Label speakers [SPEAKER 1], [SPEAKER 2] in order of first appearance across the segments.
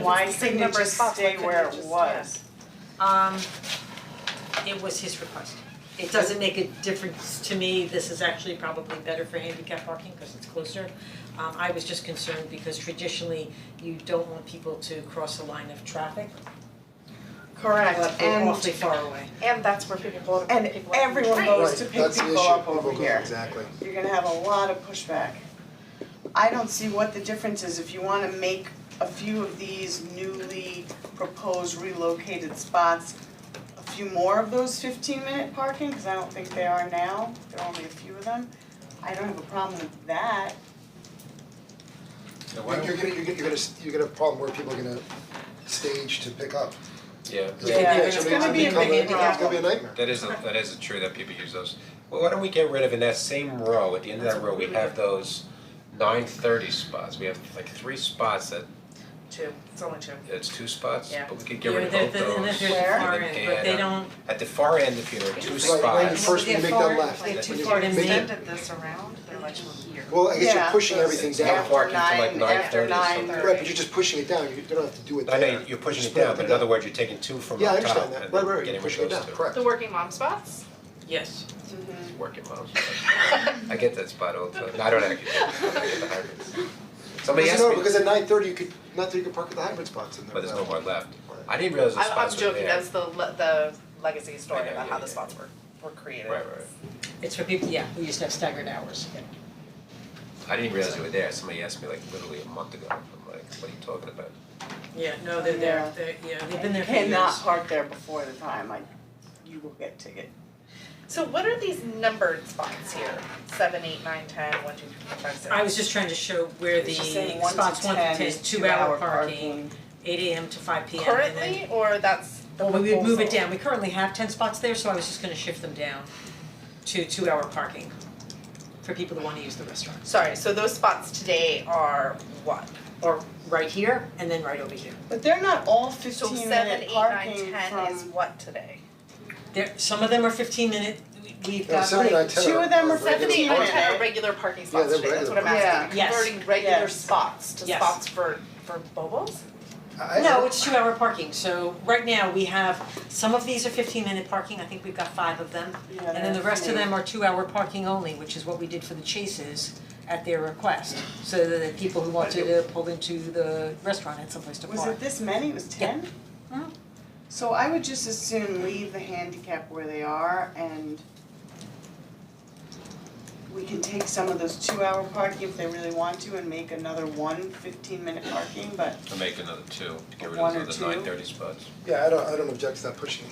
[SPEAKER 1] why
[SPEAKER 2] it's the
[SPEAKER 1] couldn't
[SPEAKER 2] same
[SPEAKER 1] it
[SPEAKER 2] number of
[SPEAKER 1] just
[SPEAKER 2] spots, why
[SPEAKER 1] stay
[SPEAKER 2] couldn't
[SPEAKER 1] where
[SPEAKER 2] it
[SPEAKER 1] it
[SPEAKER 2] just-
[SPEAKER 1] was?
[SPEAKER 2] Um, it was his request. It doesn't make a difference to me, this is actually probably better for handicap parking because it's closer. Um, I was just concerned because traditionally you don't want people to cross a line of traffic, but
[SPEAKER 1] Correct,
[SPEAKER 2] we're
[SPEAKER 1] and
[SPEAKER 2] awfully far away.
[SPEAKER 1] and that's where people go, and
[SPEAKER 3] People like
[SPEAKER 1] everyone
[SPEAKER 3] me.
[SPEAKER 1] goes to pick
[SPEAKER 4] That's the
[SPEAKER 1] people
[SPEAKER 4] issue,
[SPEAKER 1] up
[SPEAKER 4] people
[SPEAKER 1] over
[SPEAKER 4] go-
[SPEAKER 1] here.
[SPEAKER 4] exactly.
[SPEAKER 1] You're gonna have a lot of pushback. I don't see what the difference is if you wanna make a few of these newly proposed relocated spots, a few more of those fifteen minute parking, cause I don't think they are now, there are only a few of them. I don't have a problem with that,
[SPEAKER 4] You're gonna, you're gonna, you're gonna, you're gonna have a problem where people are gonna stage to pick up.
[SPEAKER 5] Yeah,
[SPEAKER 1] Yeah,
[SPEAKER 2] it's gonna be a
[SPEAKER 4] become
[SPEAKER 2] big
[SPEAKER 4] It's gonna be a nightmare.
[SPEAKER 5] that is, a- that is true that people use those. Well, why don't we get rid of, in that same row, at the end of that row, we have those nine thirty spots. We have like three spots that,
[SPEAKER 3] Two, it's only two.
[SPEAKER 5] it's two spots,
[SPEAKER 3] Yeah.
[SPEAKER 5] but we could get rid of both those.
[SPEAKER 2] Yeah, they're,
[SPEAKER 1] Where?
[SPEAKER 2] they're far
[SPEAKER 5] And then
[SPEAKER 2] in, but they
[SPEAKER 5] add
[SPEAKER 2] don't,
[SPEAKER 5] At the far end, if you have two
[SPEAKER 4] Right, right, you
[SPEAKER 5] spots,
[SPEAKER 4] first when you make that left.
[SPEAKER 3] They
[SPEAKER 5] That's
[SPEAKER 3] too
[SPEAKER 5] what you
[SPEAKER 3] far to
[SPEAKER 5] mean.
[SPEAKER 3] extended this around, they're like here.
[SPEAKER 4] Well, I guess you're
[SPEAKER 1] Yeah.
[SPEAKER 4] pushing everything
[SPEAKER 5] It's not
[SPEAKER 4] down.
[SPEAKER 5] parking till like
[SPEAKER 1] After nine- after
[SPEAKER 5] 9:30 or something.
[SPEAKER 4] Right, but you're just pushing it down, you don't have to do it there.
[SPEAKER 5] I know you're pushing it
[SPEAKER 4] Just put
[SPEAKER 5] down, but in
[SPEAKER 4] there.
[SPEAKER 5] other words, you're taking two from
[SPEAKER 4] Yeah, I
[SPEAKER 5] up top
[SPEAKER 4] understand
[SPEAKER 5] and
[SPEAKER 4] that, right, right,
[SPEAKER 5] then
[SPEAKER 4] right, you're
[SPEAKER 5] getting rid
[SPEAKER 4] pushing
[SPEAKER 5] of
[SPEAKER 4] it down,
[SPEAKER 5] those two.
[SPEAKER 4] correct.
[SPEAKER 3] The working mom spots?
[SPEAKER 2] yes,
[SPEAKER 5] Working moms. I get that spot all the time. No, I don't actually. I get the hybrids. Somebody
[SPEAKER 4] Because
[SPEAKER 5] asked
[SPEAKER 4] no,
[SPEAKER 5] me,
[SPEAKER 4] because at nine thirty, you could, not that you could park at the hybrid spots in there.
[SPEAKER 5] but there's no more left.
[SPEAKER 4] Right.
[SPEAKER 5] I didn't realize those
[SPEAKER 3] I'm, I'm
[SPEAKER 5] spots were
[SPEAKER 3] joking,
[SPEAKER 5] there.
[SPEAKER 3] that's the, le- the legacy
[SPEAKER 5] I
[SPEAKER 3] story
[SPEAKER 5] know,
[SPEAKER 3] about
[SPEAKER 5] yeah,
[SPEAKER 3] how the
[SPEAKER 5] yeah.
[SPEAKER 3] spots were, were created.
[SPEAKER 5] Right, right.
[SPEAKER 2] it's for people, yeah, who used to have staggered hours, yeah.
[SPEAKER 5] I didn't realize they were there. Somebody asked me like literally a month ago. I'm like, what are you talking about?
[SPEAKER 2] Yeah, no, they're
[SPEAKER 1] Yeah.
[SPEAKER 2] there, they're, yeah, they've been
[SPEAKER 1] and you
[SPEAKER 2] there for years.
[SPEAKER 1] cannot park there before the time, like, you will get ticket.
[SPEAKER 3] So what are these numbered spots here? Seven, eight, nine, ten, one, two, three, four, five, six.
[SPEAKER 2] I was just trying to show where the
[SPEAKER 1] She's saying one to
[SPEAKER 2] spots one to
[SPEAKER 1] ten
[SPEAKER 2] ten,
[SPEAKER 1] is
[SPEAKER 2] two hour
[SPEAKER 1] parking.
[SPEAKER 2] parking, eight AM to five PM and then.
[SPEAKER 3] Currently, or that's the
[SPEAKER 2] Well, we would move it
[SPEAKER 3] proposal?
[SPEAKER 2] down, we currently have ten spots there, so I was just gonna shift them down to two hour parking for people who wanna use the restaurant.
[SPEAKER 3] Sorry, so those spots today are what?
[SPEAKER 2] Or right here and then right over here.
[SPEAKER 1] But they're not all
[SPEAKER 3] So seven,
[SPEAKER 1] fifteen minute
[SPEAKER 3] eight, nine,
[SPEAKER 1] parking
[SPEAKER 3] ten is
[SPEAKER 1] from,
[SPEAKER 3] what today?
[SPEAKER 2] There, some of them are fifteen minute, we- we've
[SPEAKER 4] Yeah,
[SPEAKER 2] got
[SPEAKER 4] seven and
[SPEAKER 2] like,
[SPEAKER 4] nine, ten
[SPEAKER 1] two
[SPEAKER 4] are-
[SPEAKER 1] of them are
[SPEAKER 4] are regular
[SPEAKER 3] Seven, eight,
[SPEAKER 1] parking.
[SPEAKER 3] nine,
[SPEAKER 4] spots.
[SPEAKER 3] ten are regular parking
[SPEAKER 4] Yeah,
[SPEAKER 3] spots
[SPEAKER 4] they're
[SPEAKER 3] today, that's what I'm
[SPEAKER 4] regular
[SPEAKER 3] asking,
[SPEAKER 2] parking. Yeah.
[SPEAKER 3] converting regular
[SPEAKER 1] Yes.
[SPEAKER 3] spots to
[SPEAKER 2] Yes.
[SPEAKER 3] spots for, for bobos?
[SPEAKER 4] I- I-
[SPEAKER 2] no, it's two hour parking, so right now we have, some of these are fifteen minute parking, I think we've got five of them.
[SPEAKER 1] Yeah,
[SPEAKER 2] And then the
[SPEAKER 1] that's
[SPEAKER 2] rest of
[SPEAKER 1] me.
[SPEAKER 2] them are two hour parking only, which is what we did for the chases at their request. So that the people who wanted to pull into the restaurant had someplace to park.
[SPEAKER 1] Was it this many, it was ten?
[SPEAKER 2] Mhm.
[SPEAKER 1] So I would just as soon leave the handicap where they are and we can take some of those two hour parking if they really want to and make another one fifteen minute parking, but
[SPEAKER 5] To make another two, to get rid
[SPEAKER 1] One or
[SPEAKER 5] of those
[SPEAKER 1] two?
[SPEAKER 5] other nine thirty spots.
[SPEAKER 4] Yeah, I don't, I don't object to that pushing.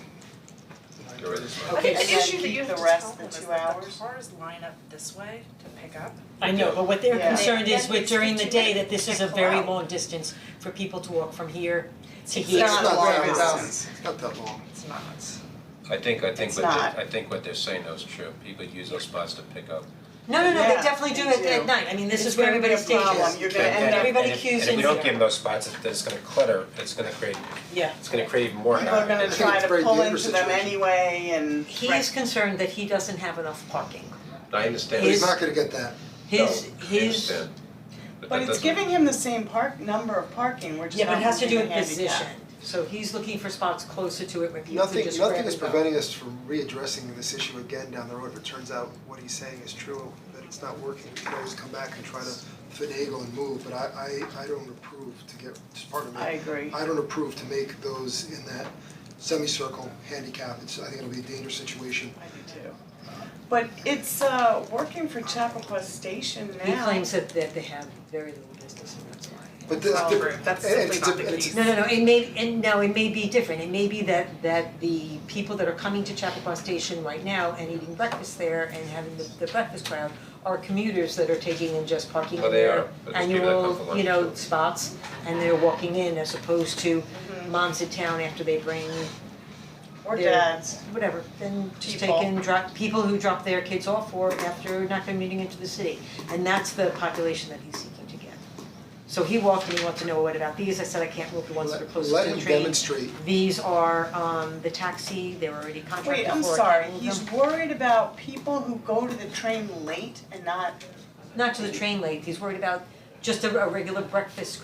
[SPEAKER 5] Get rid of those.
[SPEAKER 3] I
[SPEAKER 2] Okay,
[SPEAKER 3] think the
[SPEAKER 1] so
[SPEAKER 3] issue that
[SPEAKER 1] keep
[SPEAKER 3] you
[SPEAKER 1] the
[SPEAKER 3] have to
[SPEAKER 1] rest
[SPEAKER 3] tell
[SPEAKER 1] the
[SPEAKER 3] them is
[SPEAKER 1] two
[SPEAKER 3] that the
[SPEAKER 1] hours.
[SPEAKER 3] cars line up this way to pick up.
[SPEAKER 2] I know, but what they're
[SPEAKER 1] Yeah.
[SPEAKER 2] concerned is
[SPEAKER 3] Then
[SPEAKER 2] with
[SPEAKER 3] it's
[SPEAKER 2] during the day,
[SPEAKER 3] 15
[SPEAKER 2] that this is a
[SPEAKER 3] minutes.
[SPEAKER 2] very
[SPEAKER 3] Wow.
[SPEAKER 2] long distance for people to walk from here to
[SPEAKER 1] It's
[SPEAKER 2] here.
[SPEAKER 1] not
[SPEAKER 4] It's not
[SPEAKER 1] long
[SPEAKER 4] that-
[SPEAKER 1] distance.
[SPEAKER 4] it's not that long.
[SPEAKER 3] It's not.
[SPEAKER 5] I think, I think
[SPEAKER 1] It's
[SPEAKER 5] what
[SPEAKER 1] not.
[SPEAKER 5] they, I think what they're saying though is true. People use those spots to pick up.
[SPEAKER 2] No, no, no, they
[SPEAKER 1] Yeah,
[SPEAKER 2] definitely do
[SPEAKER 1] they
[SPEAKER 2] it at
[SPEAKER 1] do.
[SPEAKER 2] night, I mean, this
[SPEAKER 1] It's
[SPEAKER 2] is where
[SPEAKER 1] gonna be a
[SPEAKER 2] everybody stages.
[SPEAKER 1] problem. You're gonna
[SPEAKER 5] And-
[SPEAKER 1] end
[SPEAKER 5] and-
[SPEAKER 1] up-
[SPEAKER 2] Everybody
[SPEAKER 5] and if-
[SPEAKER 2] queues
[SPEAKER 5] And if
[SPEAKER 2] in
[SPEAKER 5] we don't
[SPEAKER 2] here.
[SPEAKER 5] give them those spots, it's, it's gonna clutter, it's gonna create,
[SPEAKER 2] Yeah.
[SPEAKER 5] it's gonna create even more
[SPEAKER 1] people are
[SPEAKER 5] havoc.
[SPEAKER 1] gonna
[SPEAKER 4] think
[SPEAKER 1] try
[SPEAKER 4] it's
[SPEAKER 1] to
[SPEAKER 4] very
[SPEAKER 1] pull
[SPEAKER 4] dangerous
[SPEAKER 1] into them
[SPEAKER 4] situation.
[SPEAKER 1] anyway and
[SPEAKER 2] He is concerned that he doesn't have enough parking.
[SPEAKER 5] I understand.
[SPEAKER 4] But he's
[SPEAKER 2] Is-
[SPEAKER 4] not gonna get that.
[SPEAKER 2] His,
[SPEAKER 5] No, I
[SPEAKER 2] his,
[SPEAKER 5] understand. But
[SPEAKER 1] But
[SPEAKER 5] that
[SPEAKER 1] it's
[SPEAKER 5] doesn't-
[SPEAKER 1] giving him the same park, number of parking, we're just
[SPEAKER 2] yeah, but
[SPEAKER 1] not
[SPEAKER 2] it has to do
[SPEAKER 1] moving
[SPEAKER 2] with
[SPEAKER 1] the
[SPEAKER 2] position,
[SPEAKER 1] handicap.
[SPEAKER 2] so he's looking for spots closer to it where people can
[SPEAKER 4] Nothing,
[SPEAKER 2] just grab
[SPEAKER 4] nothing is
[SPEAKER 2] and go.
[SPEAKER 4] preventing us from readdressing this issue again down the road. If it turns out what he's saying is true, that it's not working, we can always come back and try to finagle and move, but I, I, I don't approve to get, just pardon me.
[SPEAKER 1] I agree.
[SPEAKER 4] I don't approve to make those in that semicircle handicap. It's, I think it'll be a dangerous situation.
[SPEAKER 1] I do too. But it's uh working for Chappaqua Station now.
[SPEAKER 2] He claims that that they have very little business and that's why.
[SPEAKER 4] But that's
[SPEAKER 3] Well,
[SPEAKER 4] different, and
[SPEAKER 3] that's
[SPEAKER 4] it's,
[SPEAKER 3] simply not
[SPEAKER 4] a-
[SPEAKER 3] the
[SPEAKER 4] and it's,
[SPEAKER 3] case.
[SPEAKER 2] No, no, no, it may, and no, it may be different, it may be that that the people that are coming to Chappaqua Station right now and eating breakfast there and having the the breakfast crowd are commuters that are taking and just parking
[SPEAKER 5] Well,
[SPEAKER 2] in
[SPEAKER 5] Oh, they
[SPEAKER 2] their
[SPEAKER 5] are, but there's people that come for
[SPEAKER 2] annual,
[SPEAKER 5] lunch,
[SPEAKER 2] you know,
[SPEAKER 5] too.
[SPEAKER 2] spots and they're walking in as opposed to moms in town after they bring
[SPEAKER 1] Or
[SPEAKER 2] They're-
[SPEAKER 1] dads.
[SPEAKER 2] whatever, then just
[SPEAKER 1] People.
[SPEAKER 2] taking drop, people who drop their kids off or after not commuting into the city. And that's the population that he's seeking to get. So he walked and he wanted to know what about these, I said I can't move the ones that are
[SPEAKER 4] let,
[SPEAKER 2] closest to
[SPEAKER 4] let
[SPEAKER 2] the
[SPEAKER 4] him
[SPEAKER 2] train.
[SPEAKER 4] demonstrate.
[SPEAKER 2] These are um the taxi, they were already contracted for.
[SPEAKER 1] Wait, I'm
[SPEAKER 2] it.
[SPEAKER 1] sorry, he's worried about people who go to the train late and not
[SPEAKER 2] Not to the train late, he's worried about just a a regular breakfast